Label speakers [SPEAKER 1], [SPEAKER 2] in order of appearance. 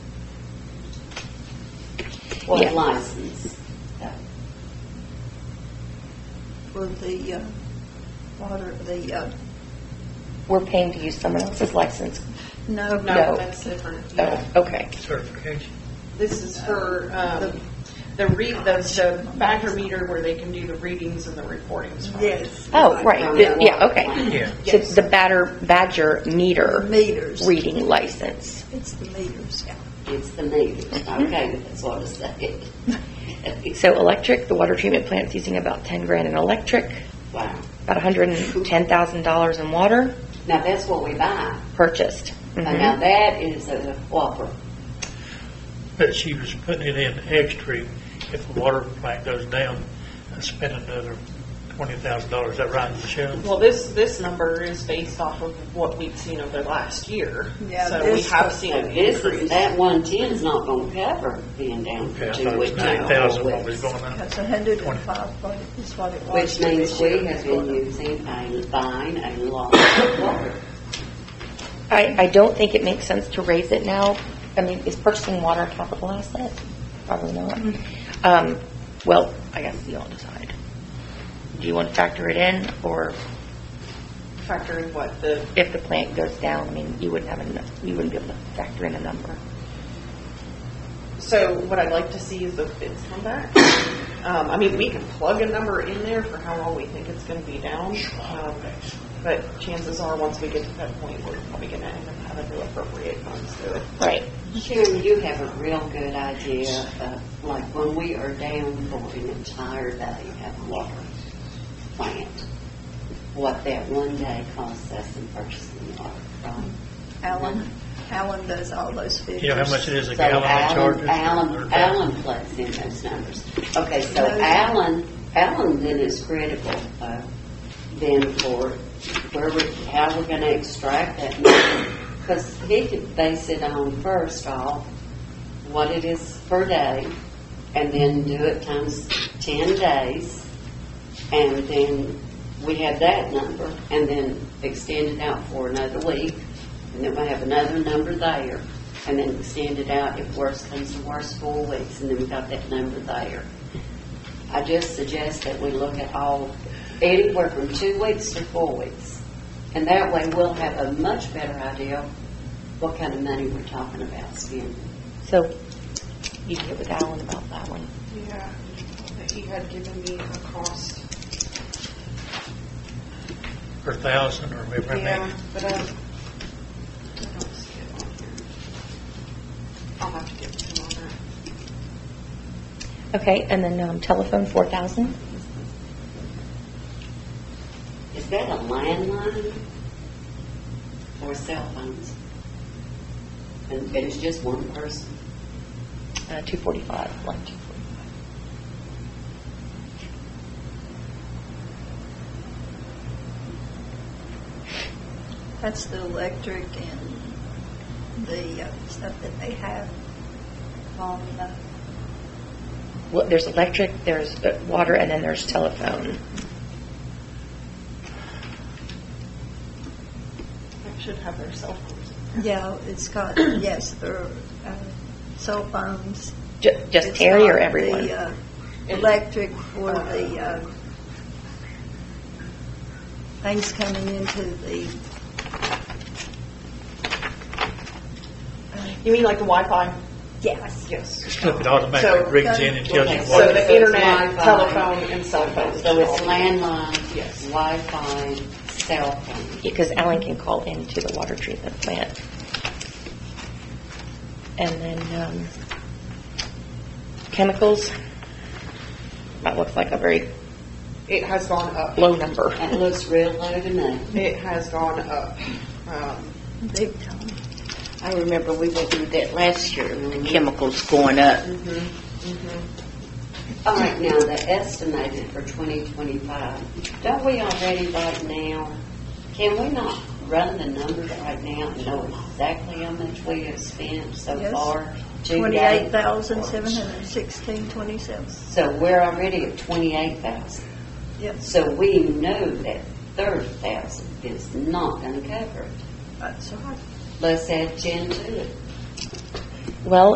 [SPEAKER 1] or
[SPEAKER 2] Yeah.
[SPEAKER 1] license. Yeah.
[SPEAKER 3] for the uh, water, the, uh,
[SPEAKER 2] We're paying to use someone else's license.
[SPEAKER 3] no,
[SPEAKER 2] No.
[SPEAKER 3] no,
[SPEAKER 4] That's different.
[SPEAKER 2] Oh,
[SPEAKER 4] yeah.
[SPEAKER 2] okay.
[SPEAKER 5] certification.
[SPEAKER 4] This is for um, the read, the the backer meter where they can do the readings and the recordings. from.
[SPEAKER 3] yes,
[SPEAKER 2] Oh, right. The- Yeah, okay.
[SPEAKER 5] Yeah.
[SPEAKER 2] So it's the batter, badger
[SPEAKER 3] the
[SPEAKER 2] meter
[SPEAKER 3] meters.
[SPEAKER 2] reading license.
[SPEAKER 3] It's the meters, yeah.
[SPEAKER 1] It's the meters, okay, that's what I said.
[SPEAKER 2] So electric, the water treatment plant's using about 10 grand in electric,
[SPEAKER 1] Wow.
[SPEAKER 2] about $110,000 in water
[SPEAKER 1] Now, that's what we buy.
[SPEAKER 2] purchased.
[SPEAKER 1] Now,
[SPEAKER 2] Mhm.
[SPEAKER 1] now that is a whopper.
[SPEAKER 5] But she was putting it in extra if the water plant goes down, and spend another twenty thousand dollars. Is that right, Michelle?
[SPEAKER 4] Well, this, this number is based off of what we've seen over the last year.
[SPEAKER 3] Yeah,
[SPEAKER 4] So we
[SPEAKER 3] this-
[SPEAKER 4] have seen
[SPEAKER 1] So
[SPEAKER 4] an
[SPEAKER 1] this,
[SPEAKER 4] increase.
[SPEAKER 1] is- that one ten's not gonna cover being down
[SPEAKER 5] Okay,
[SPEAKER 1] for
[SPEAKER 5] I thought
[SPEAKER 1] two
[SPEAKER 5] it was
[SPEAKER 1] weeks.
[SPEAKER 5] nine thousand when we was going up.
[SPEAKER 3] That's a hundred and five point, is what it was.
[SPEAKER 1] Which means
[SPEAKER 3] this year.
[SPEAKER 1] we have been using a, buying a lot of water.
[SPEAKER 2] I, I don't think it makes sense to raise it now. I mean, is purchasing water a capital asset? Probably not.
[SPEAKER 4] Mm-hmm.
[SPEAKER 2] Um, well, I guess you all decide. Do you want to factor it in, or
[SPEAKER 4] Factor in what the,
[SPEAKER 2] if the plant goes down, I mean, you wouldn't have enough, you wouldn't be able to factor in a number.
[SPEAKER 4] so what I'd like to see is the bids come back. Um, I mean, we can plug a number in there for how long we think it's gonna be down. um, But chances are, once we get to that point, we're probably gonna end up having to appropriate funds to it.
[SPEAKER 2] Right.
[SPEAKER 1] Sharon, you have a real good idea of, like, when we are down for an entire day at a water plant, what that one day costs us in purchasing water, right?
[SPEAKER 3] Alan, Alan does all those figures.
[SPEAKER 5] You know how much it is a
[SPEAKER 1] So
[SPEAKER 5] gallon they charge
[SPEAKER 1] Alan,
[SPEAKER 5] us?
[SPEAKER 1] Alan, Alan plugs in those numbers. Okay, so Alan, Alan then is critical, uh, then for where we, how we're gonna extract that number. Because he could base it on first off what it is per day, and then do it times ten days, and then we have that number, and then extend it out for another week, and then we have another number there, and then extend it out if worse comes to worse, four weeks, and then we got that number there. I just suggest that we look at all, anywhere from two weeks to four weeks, and that way we'll have a much better idea what kind of money we're talking about spending.
[SPEAKER 2] So you can get with Alan about that one.
[SPEAKER 6] Yeah, that he had given me a cost.
[SPEAKER 5] Per thousand or whatever it
[SPEAKER 6] Yeah,
[SPEAKER 5] is.
[SPEAKER 6] but I, I don't see it on here. I'll have to get with him on that.
[SPEAKER 2] Okay, and then um, telephone, 4,000?
[SPEAKER 1] Is that a landline or cell phones? And and it's just one person?
[SPEAKER 2] Uh, 245, like 245.
[SPEAKER 3] That's the electric and the uh, stuff that they have on the,
[SPEAKER 2] Well, there's electric, there's uh, water, and then there's telephone.
[SPEAKER 4] They should have their cell phones.
[SPEAKER 3] yeah, it's got, yes, their uh, cell phones.
[SPEAKER 2] Ju- Just
[SPEAKER 3] It's
[SPEAKER 2] Terry
[SPEAKER 3] got
[SPEAKER 2] or
[SPEAKER 3] the,
[SPEAKER 2] everyone?
[SPEAKER 3] uh, Electric for the uh, things coming into the,
[SPEAKER 4] You mean like the Wi-Fi?
[SPEAKER 3] yes.
[SPEAKER 4] Yes.
[SPEAKER 5] It automatically rigs in and tells you
[SPEAKER 1] Okay,
[SPEAKER 4] So
[SPEAKER 5] what.
[SPEAKER 1] it's
[SPEAKER 4] the internet,
[SPEAKER 1] Wi-Fi.
[SPEAKER 4] telephone, and cell phones.
[SPEAKER 1] So it's
[SPEAKER 4] land.
[SPEAKER 1] landline?
[SPEAKER 4] Yes.
[SPEAKER 1] Wi-Fi, cell phone?
[SPEAKER 2] Because Alan can call into the water treatment plant. And then um, chemicals, that looks like a very
[SPEAKER 4] It has gone up.
[SPEAKER 2] low number.
[SPEAKER 1] That looks real low to me.
[SPEAKER 4] It has gone up. Um,
[SPEAKER 3] Big time.
[SPEAKER 7] I remember we went through that last year, the chemicals going up.
[SPEAKER 3] Mm-hmm,
[SPEAKER 1] All right, now, the estimated for 2025, don't we already right now, can we not run the numbers right now and know exactly how much we have spent so
[SPEAKER 3] Yes.
[SPEAKER 1] far? to date?
[SPEAKER 3] Twenty-eight thousand, seven hundred and sixteen, twenty-seven.
[SPEAKER 1] So we're already at 28,000.
[SPEAKER 3] Yep,
[SPEAKER 1] So we know that thirty thousand is not uncovered.
[SPEAKER 3] that's right.
[SPEAKER 1] Let's add ten to it.
[SPEAKER 2] Well,